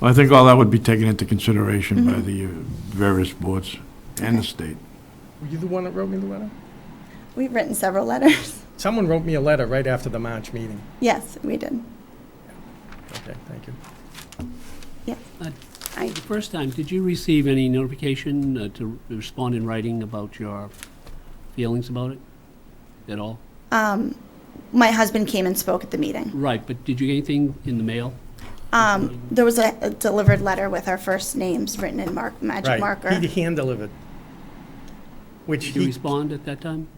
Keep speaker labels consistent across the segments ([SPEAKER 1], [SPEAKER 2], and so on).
[SPEAKER 1] Well, I think all that would be taken into consideration by the uh, various boards and the state.
[SPEAKER 2] Were you the one that wrote me the letter?
[SPEAKER 3] We've written several letters.
[SPEAKER 2] Someone wrote me a letter right after the March meeting.
[SPEAKER 3] Yes, we did.
[SPEAKER 2] Okay, thank you.
[SPEAKER 3] I,
[SPEAKER 4] The first time, did you receive any notification uh, to respond in writing about your feelings about it at all?
[SPEAKER 3] um, my husband came and spoke at the meeting.
[SPEAKER 4] Right, but did you get anything in the mail?
[SPEAKER 3] Um, there was a, a delivered letter with our first names written in mark, magic
[SPEAKER 2] Right.
[SPEAKER 3] marker.
[SPEAKER 2] He hand-delivered. Which
[SPEAKER 4] Did you
[SPEAKER 2] he,
[SPEAKER 4] respond at that time?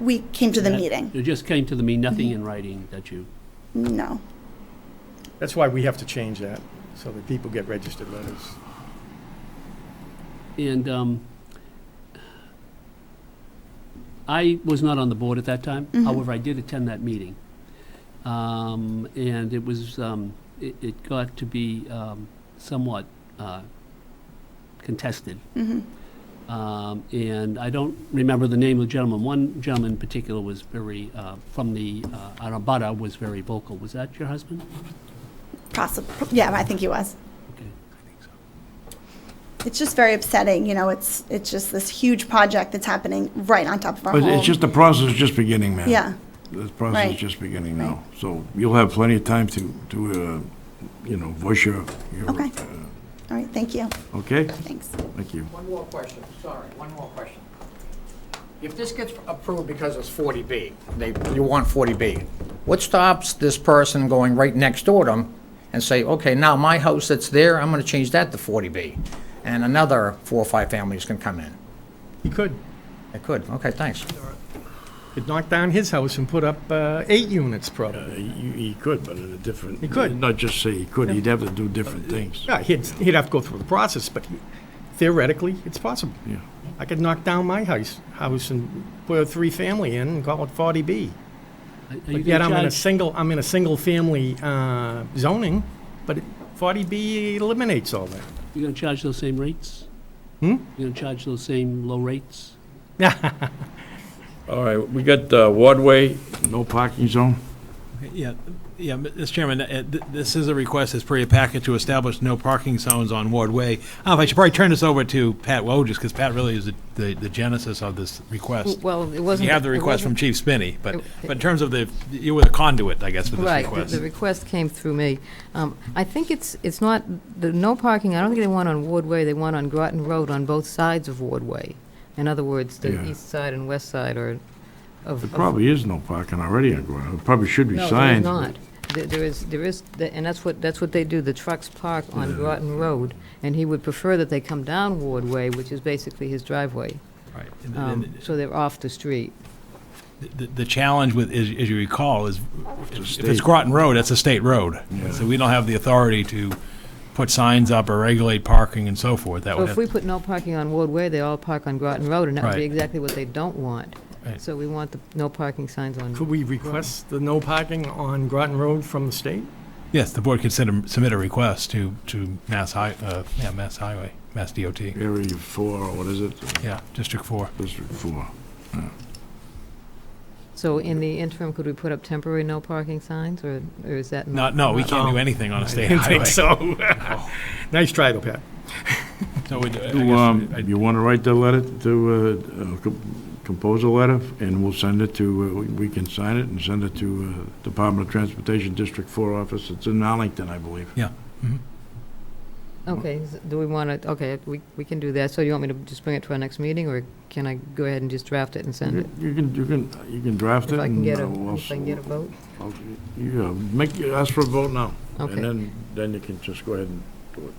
[SPEAKER 3] We came to the
[SPEAKER 4] That-
[SPEAKER 3] meeting.
[SPEAKER 4] It just came to the me, nothing in writing that you,
[SPEAKER 3] No.
[SPEAKER 2] that's why we have to change that, so that people get registered letters.
[SPEAKER 4] and um, I was not on the board at that time. However, I did attend that meeting. Um, And it was, um, it it got to be um, somewhat uh, contested.
[SPEAKER 3] hmm
[SPEAKER 4] Um, And I don't remember the name of the gentleman. One gentleman in particular was very, uh, from the uh, Arabada, was very vocal. Was that your husband?
[SPEAKER 3] Possible. Yeah, I think he was.
[SPEAKER 4] Okay.
[SPEAKER 3] It's just very upsetting. You know, it's it's just this huge project that's happening right on top of our
[SPEAKER 1] But
[SPEAKER 3] home.
[SPEAKER 1] it's just, the process is just beginning, man.
[SPEAKER 3] yeah.
[SPEAKER 1] The process is
[SPEAKER 3] Right.
[SPEAKER 1] just beginning now. So you'll have plenty of time to, to, uh, you know, voice your, your.
[SPEAKER 3] Okay. All right. Thank you.
[SPEAKER 1] uh, Okay?
[SPEAKER 3] Thanks.
[SPEAKER 1] Thank you.
[SPEAKER 5] One more question, sorry, one more question. If this gets approved because it's 40B, they, you want 40B, what stops this person going right next door to them and say, okay, now my house that's there, I'm going to change that to 40B? And another four or five families can come in?
[SPEAKER 2] He could.
[SPEAKER 5] They could, okay, thanks.
[SPEAKER 2] Could knock down his house and put up uh, eight units probably.
[SPEAKER 1] He, he could, but in a different.
[SPEAKER 2] He could.
[SPEAKER 1] Not just say he could, he'd have to do different things.
[SPEAKER 2] Yeah, he'd, he'd have to go through the process, but theoretically, it's possible.
[SPEAKER 1] Yeah.
[SPEAKER 2] I could knock down my house, house and put a three-family in and call it 40B.
[SPEAKER 4] Are- are you
[SPEAKER 2] But
[SPEAKER 4] gonna
[SPEAKER 2] yet I'm in a
[SPEAKER 4] charge-
[SPEAKER 2] single, I'm in a single-family uh, zoning, but 40B eliminates all that.
[SPEAKER 4] You gonna charge those same rates?
[SPEAKER 2] Hmm?
[SPEAKER 4] You gonna charge those same low rates?
[SPEAKER 1] All right, we got uh, Wardway, no parking zone.
[SPEAKER 6] Yeah, yeah, Mr. Chairman, uh, th- this is a request as per your packet to establish no parking zones on Ward Way. Uh, I should probably turn this over to Pat Woj, just because Pat really is the- the the genesis of this request.
[SPEAKER 7] Well, it
[SPEAKER 6] You
[SPEAKER 7] wasn't.
[SPEAKER 6] have the
[SPEAKER 7] it
[SPEAKER 6] request from
[SPEAKER 7] wasn't-
[SPEAKER 6] Chief Spinney, but
[SPEAKER 7] It-
[SPEAKER 6] but in terms of the, you were the conduit, I guess, for this
[SPEAKER 7] Right, the-
[SPEAKER 6] request.
[SPEAKER 7] the request came through me. Um, I think it's, it's not, the no parking, I don't think they want on Ward Way, they want on Groton Road on both sides of Ward Way. In other words, the
[SPEAKER 1] Yeah.
[SPEAKER 7] east side and west side are of.
[SPEAKER 1] There
[SPEAKER 7] of-
[SPEAKER 1] probably is no parking already on Groton. There probably should be
[SPEAKER 7] No,
[SPEAKER 1] signs.
[SPEAKER 7] there is
[SPEAKER 1] but-
[SPEAKER 7] not. There- There is, there is, the- and that's what, that's what they do, the trucks park on Groton Road, and he would prefer that they come down Ward Way, which is basically his driveway,
[SPEAKER 6] Right. And-
[SPEAKER 7] um,
[SPEAKER 6] and
[SPEAKER 7] so they're off the street.
[SPEAKER 6] The the challenge with, as as you recall, is if
[SPEAKER 1] state.
[SPEAKER 6] it's Groton Road, that's a state road. So we don't have the authority to put signs up or regulate parking and so forth. That
[SPEAKER 7] Well,
[SPEAKER 6] would
[SPEAKER 7] if
[SPEAKER 6] have
[SPEAKER 7] we put no parking on Ward Way, they all park on Groton Road, and that would be
[SPEAKER 6] Right.
[SPEAKER 7] exactly what they don't want.
[SPEAKER 6] Right.
[SPEAKER 7] So we want the no parking signs on.
[SPEAKER 2] Could we request the no parking on Groton Road from the state?
[SPEAKER 6] Yes, the board could send a, submit a request to, to Mass Hi, uh, yeah, Mass Highway, Mass DOT,
[SPEAKER 1] Area four, or what is it?
[SPEAKER 6] yeah, District Four.
[SPEAKER 1] District four.
[SPEAKER 7] So in the interim, could we put up temporary no parking signs, or, or is that?
[SPEAKER 6] No, no, we can't do anything on a state
[SPEAKER 2] Didn't
[SPEAKER 6] highway.
[SPEAKER 2] think so. Nice try, though, Pat.
[SPEAKER 6] So we'd- I
[SPEAKER 1] You, um,
[SPEAKER 6] guess
[SPEAKER 1] you want to write the letter to, uh, uh, com- compose a letter, and we'll send it to, uh, we- we can sign it and send it to uh, Department of Transportation District Four office. It's in Arlington, I believe.
[SPEAKER 7] Okay, s- do we want to, okay, we, we can do that, so you want me to just bring it to our next meeting, or can I go ahead and just draft it and send it?
[SPEAKER 1] You you can, you can, you can draft it.
[SPEAKER 7] If I can
[SPEAKER 1] and,
[SPEAKER 7] get
[SPEAKER 1] uh,
[SPEAKER 7] a,
[SPEAKER 1] we'll
[SPEAKER 7] if I can get a vote?
[SPEAKER 1] I'll- Yeah, make, ask for a vote now.
[SPEAKER 7] Okay.
[SPEAKER 1] And then, then you can just go ahead and do it.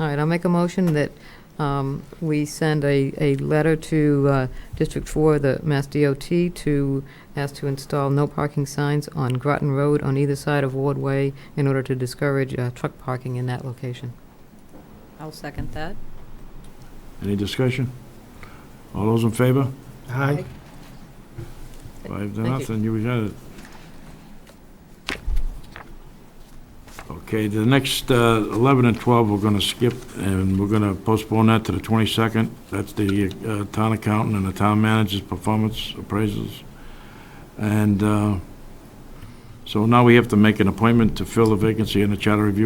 [SPEAKER 7] All right, I'll make a motion that um, we send a, a letter to uh, District 4, the Mass DOT, to ask to install no parking signs on Groton Road on either side of Ward Way in order to discourage uh, truck parking in that location.
[SPEAKER 8] I'll second that.
[SPEAKER 1] Any discussion? All those in favor?
[SPEAKER 2] Hi.
[SPEAKER 1] Five to
[SPEAKER 7] Thank you.
[SPEAKER 1] nothing, you got it. Okay, the next uh, 11 and 12, we're going to skip, and we're going to postpone that to the 22nd. That's the uh, town accountant and the town manager's performance appraisals. And uh, so now we have to make an appointment to fill the vacancy in the charter review